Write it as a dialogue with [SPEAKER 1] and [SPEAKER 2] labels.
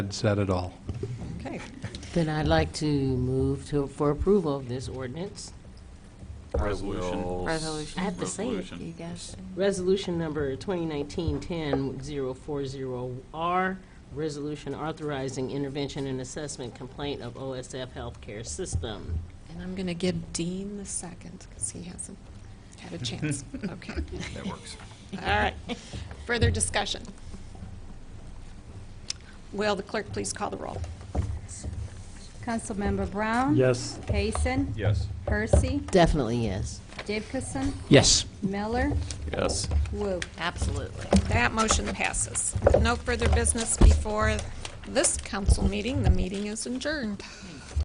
[SPEAKER 1] said it all.
[SPEAKER 2] Okay.
[SPEAKER 3] Then I'd like to move to, for approval of this ordinance.
[SPEAKER 4] Resolution.
[SPEAKER 5] Resolution.
[SPEAKER 3] I have to say it.
[SPEAKER 4] Resolution.
[SPEAKER 5] You guys,
[SPEAKER 3] Resolution number 2019-10-040R, resolution authorizing intervention and assessment complaint of OSF Healthcare System.
[SPEAKER 5] and I'm going to give Dean the second because he hasn't had a chance. Okay.
[SPEAKER 4] That works.
[SPEAKER 5] All right. Further discussion? Will the clerk please call the roll?
[SPEAKER 6] Councilmember Brown?
[SPEAKER 7] Yes.
[SPEAKER 6] Payson?
[SPEAKER 4] Yes.
[SPEAKER 6] Percy?
[SPEAKER 3] Definitely yes.
[SPEAKER 6] Jacobson?
[SPEAKER 1] Yes.
[SPEAKER 6] Miller?
[SPEAKER 4] Yes.
[SPEAKER 6] Woo.
[SPEAKER 3] Absolutely.
[SPEAKER 5] That motion passes. No further business before this council meeting. The meeting is adjourned.